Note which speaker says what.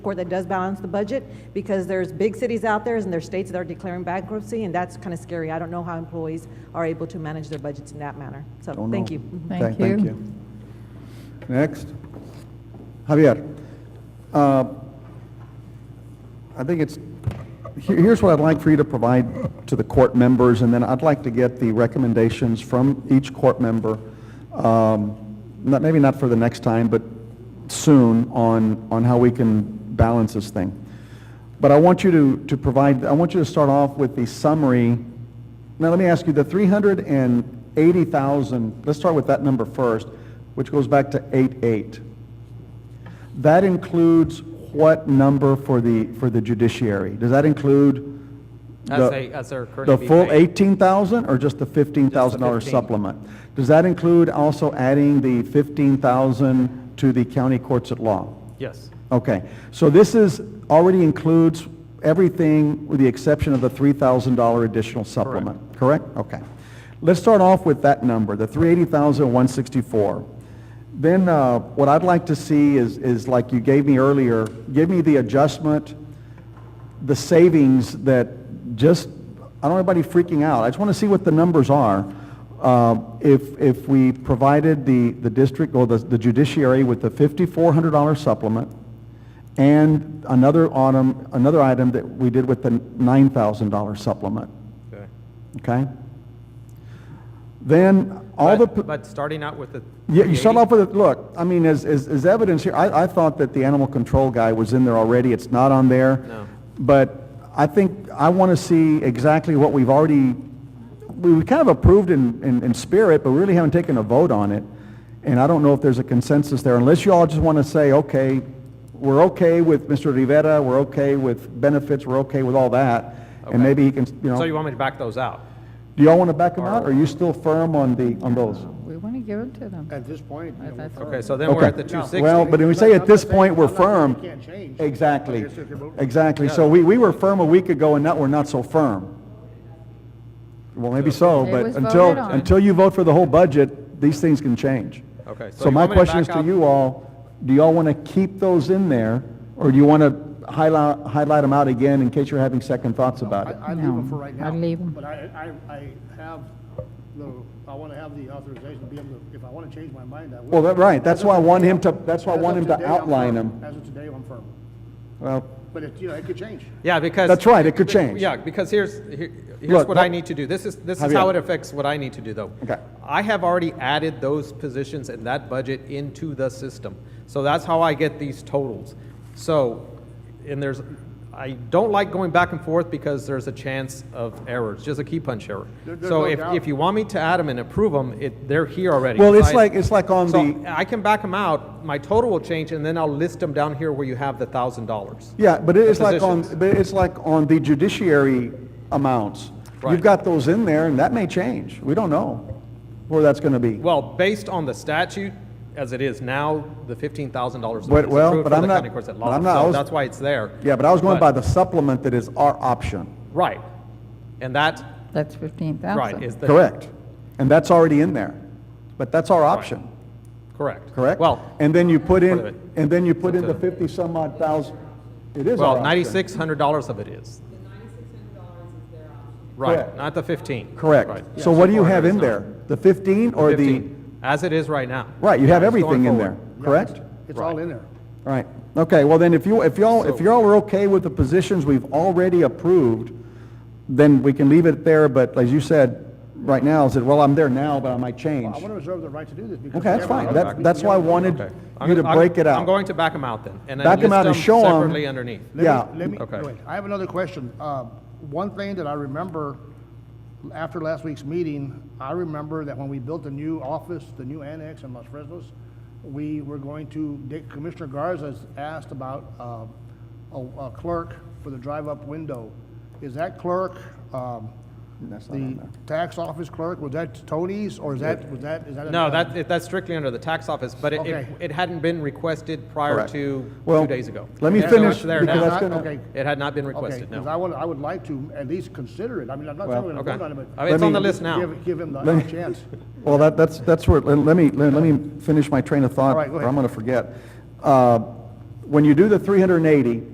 Speaker 1: or that does balance the budget, because there's big cities out there and there's states that are declaring bankruptcy, and that's kind of scary. I don't know how employees are able to manage their budgets in that manner. So,
Speaker 2: Don't
Speaker 1: thank
Speaker 2: know. Mm-hmm.
Speaker 1: you.
Speaker 3: Oh,
Speaker 1: Mm-hmm.
Speaker 2: Thank
Speaker 3: Thank
Speaker 2: thank
Speaker 3: you.
Speaker 2: you. Next. Javier, uh, I think it's, here- here's what I'd like for you to provide to the court members, and then I'd like to get the recommendations from each court member, um, not, maybe not for the next time, but soon, on, on how we can balance this thing. But I want you to, to provide, I want you to start off with the summary. Now, let me ask you, the 380,000, let's start with that number first, which goes back to eight-eight. That includes what number for the, for the judiciary? Does that include
Speaker 4: As
Speaker 2: the-
Speaker 4: they, as they're currently
Speaker 2: the
Speaker 4: being
Speaker 2: full
Speaker 4: paid.
Speaker 2: 18,000 or just the $15,000
Speaker 4: 15.
Speaker 2: supplement? Does that include also adding the 15,000 to the county courts at law?
Speaker 4: Yes,
Speaker 2: Okay, so this is, already includes everything with the exception of the $3,000 additional supplement, correct? Okay. Let's start off with that number, the 380,164. Then uh, what I'd like to see is, is like you gave me earlier, give me the adjustment, the savings that just, I don't want anybody freaking out. I just want to see what the numbers are. Uh, If, if we provided the, the district or the the judiciary with the $5,400 supplement and another item, another item that we did with the $9,000 supplement,
Speaker 4: okay.
Speaker 2: okay? Then all the...
Speaker 4: But-
Speaker 2: p-
Speaker 4: But starting out with the.
Speaker 2: yeah, you start
Speaker 4: 80
Speaker 2: off with, a- look, I mean, as, as, as evidence here, I, I thought that the animal control guy was in there already, it's not on there.
Speaker 4: No.
Speaker 2: But I think, I want to see exactly what we've already, we, we kind of approved in, in, in spirit, but we really haven't taken a vote on it. And I don't know if there's a consensus there, unless you all just want to say, okay, we're okay with Mr. Rivera, we're okay with benefits, we're okay with all that, and
Speaker 4: Okay.
Speaker 2: maybe he can, you
Speaker 4: So you
Speaker 2: know,
Speaker 4: want me to back those out?
Speaker 2: do y'all want to back him out, or are you still firm on the, on those?
Speaker 3: We want to give it to them.
Speaker 5: At this point, you know, we're
Speaker 3: That's
Speaker 5: fine.
Speaker 4: Okay, so then we're
Speaker 2: Okay.
Speaker 4: at the two sixty.
Speaker 2: Well, but when we say at this point, we're
Speaker 5: I'm not saying
Speaker 2: firm.
Speaker 5: you can't change.
Speaker 2: Exactly,
Speaker 5: Like I said, you're voting.
Speaker 2: exactly. So we, we were firm a week ago, and now we're not so firm. Well, maybe so,
Speaker 3: It
Speaker 2: but
Speaker 3: was
Speaker 2: until,
Speaker 3: voted on.
Speaker 2: until you vote for the whole budget, these things can change.
Speaker 4: Okay, so
Speaker 2: So
Speaker 4: you
Speaker 2: my
Speaker 4: want me to
Speaker 2: question is
Speaker 4: back
Speaker 2: to
Speaker 4: up?
Speaker 2: you all, do y'all want to keep those in there, or do you want to highlight, highlight them out again in case you're having second thoughts about
Speaker 5: I,
Speaker 2: it?
Speaker 5: I leave them for right
Speaker 3: No,
Speaker 5: now.
Speaker 3: I'd leave 'em.
Speaker 5: But I, I, I have the, I want to have the authorization to be able to, if I want to change my mind, I will.
Speaker 2: Well, that, right, that's why I want him to, that's why I
Speaker 5: As
Speaker 2: want
Speaker 5: of
Speaker 2: him to
Speaker 5: today, I'm
Speaker 2: outline
Speaker 5: firm.
Speaker 2: them.
Speaker 5: As of today, I'm firm.
Speaker 2: Well,
Speaker 5: But it, you know, it could change.
Speaker 4: Yeah, because.
Speaker 2: That's right, it could change.
Speaker 4: Yeah, because here's, here- here's
Speaker 2: Look,
Speaker 4: what I
Speaker 2: what-
Speaker 4: need to do. This is, this is
Speaker 2: Javier.
Speaker 4: how it affects what I need to do, though.
Speaker 2: Okay.
Speaker 4: I have already added those positions and that budget into the system. So that's how I get these totals. So, and there's, I don't like going back and forth because there's a chance of errors, just a key punch error.
Speaker 5: There- there's
Speaker 4: So
Speaker 5: no
Speaker 4: if,
Speaker 5: doubt.
Speaker 4: if you want me to add them and approve them, it, they're here already.
Speaker 2: well, it's
Speaker 4: So I-
Speaker 2: like, it's like on the,
Speaker 4: So I can back them out, my total will change, and then I'll list them down here where you have the thousand dollars.
Speaker 2: Yeah, but it's like on,
Speaker 4: positions.
Speaker 2: but it's like on the judiciary amounts. You've
Speaker 4: Right.
Speaker 2: got those in there, and that may change. We don't know where that's gonna be.
Speaker 4: Well, based on the statute, as it is now, the fifteen thousand dollars is
Speaker 2: But- well,
Speaker 4: approved for
Speaker 2: but I'm
Speaker 4: the
Speaker 2: not-
Speaker 4: county courts at
Speaker 2: but
Speaker 4: law.
Speaker 2: I'm not- I
Speaker 4: So
Speaker 2: was-
Speaker 4: that's why it's there.
Speaker 2: Yeah, but I was going by the supplement that is our option.
Speaker 4: Right. And that,
Speaker 3: That's 15,000.
Speaker 4: right, is the.
Speaker 2: Correct. And that's already in there. But that's our option,
Speaker 4: Correct.
Speaker 2: correct?
Speaker 4: Well,
Speaker 2: And then you put
Speaker 4: part of it.
Speaker 2: in, and then you put in the
Speaker 4: It's a-
Speaker 2: fifty-some odd thousand. It is our
Speaker 4: well,
Speaker 2: option.
Speaker 4: ninety-six hundred dollars of it is.
Speaker 2: Correct.
Speaker 4: Right, not the fifteen. Right.
Speaker 2: Correct.
Speaker 4: Yeah,
Speaker 2: So what do you
Speaker 4: 400
Speaker 2: have
Speaker 4: is
Speaker 2: in
Speaker 4: not
Speaker 2: there? The fifteen or the,
Speaker 4: 15, As it is right now.
Speaker 2: right, you have
Speaker 4: It's going
Speaker 2: everything in there,
Speaker 4: forward.
Speaker 2: correct?
Speaker 5: It's all in there.
Speaker 2: All Right, okay, well then, if you, if y'all, if
Speaker 4: So-
Speaker 2: y'all are okay with the positions we've already approved, then we can leave it there, but as you said, right now, said, well, I'm there now, but I might
Speaker 5: I
Speaker 2: change.
Speaker 5: want to reserve the right to do this because.
Speaker 2: Okay, that's
Speaker 5: we
Speaker 2: fine,
Speaker 5: haven't-
Speaker 2: that, that's why I wanted
Speaker 4: Okay. I'm
Speaker 2: you to
Speaker 4: gonna- I'm-
Speaker 2: break it
Speaker 4: I'm
Speaker 2: out.
Speaker 4: going to back them out then. and then
Speaker 2: Back 'em out
Speaker 4: list
Speaker 2: and show 'em.
Speaker 4: Separately underneath.
Speaker 5: Let me-
Speaker 2: Yeah.
Speaker 5: Let me, go
Speaker 4: Okay.
Speaker 5: ahead. I have another question. Uh, One thing that I remember after last week's meeting, I remember that when we built the new office, the new annex in Los Fresnos, we were going to, Dick- Commissioner Garza's asked about um, a a clerk for the drive-up window. Is that clerk, um,
Speaker 2: That's not
Speaker 5: the
Speaker 2: on there.
Speaker 5: tax office clerk, was that Tony's or is that, was that, is that?
Speaker 4: No,
Speaker 5: another-
Speaker 4: that, it- that's strictly under the tax office, but it- it,
Speaker 5: uh, Okay.
Speaker 4: it hadn't been requested prior
Speaker 2: Correct.
Speaker 4: to
Speaker 2: Well,
Speaker 4: two days ago.
Speaker 2: let me
Speaker 4: There's no-
Speaker 2: finish,
Speaker 4: it's there
Speaker 2: because
Speaker 4: now.
Speaker 2: that's gonna-
Speaker 5: Okay.
Speaker 4: It had not been
Speaker 5: Okay,
Speaker 4: requested,
Speaker 5: because I
Speaker 4: no.
Speaker 5: would, I would like to at least consider it. I mean, I'm not
Speaker 2: Well,
Speaker 5: saying we're going to
Speaker 4: Okay.
Speaker 5: vote on it,
Speaker 4: I
Speaker 5: but.
Speaker 4: mean, it's on the
Speaker 2: Let me-
Speaker 4: list now.
Speaker 5: Give, give him the
Speaker 2: Let me-
Speaker 5: chance.
Speaker 2: Well, that, that's, that's where, let let me, let let me finish my train of thought,
Speaker 5: All right, go
Speaker 2: or
Speaker 5: ahead.
Speaker 2: I'm gonna forget. Uh, when you do the 380,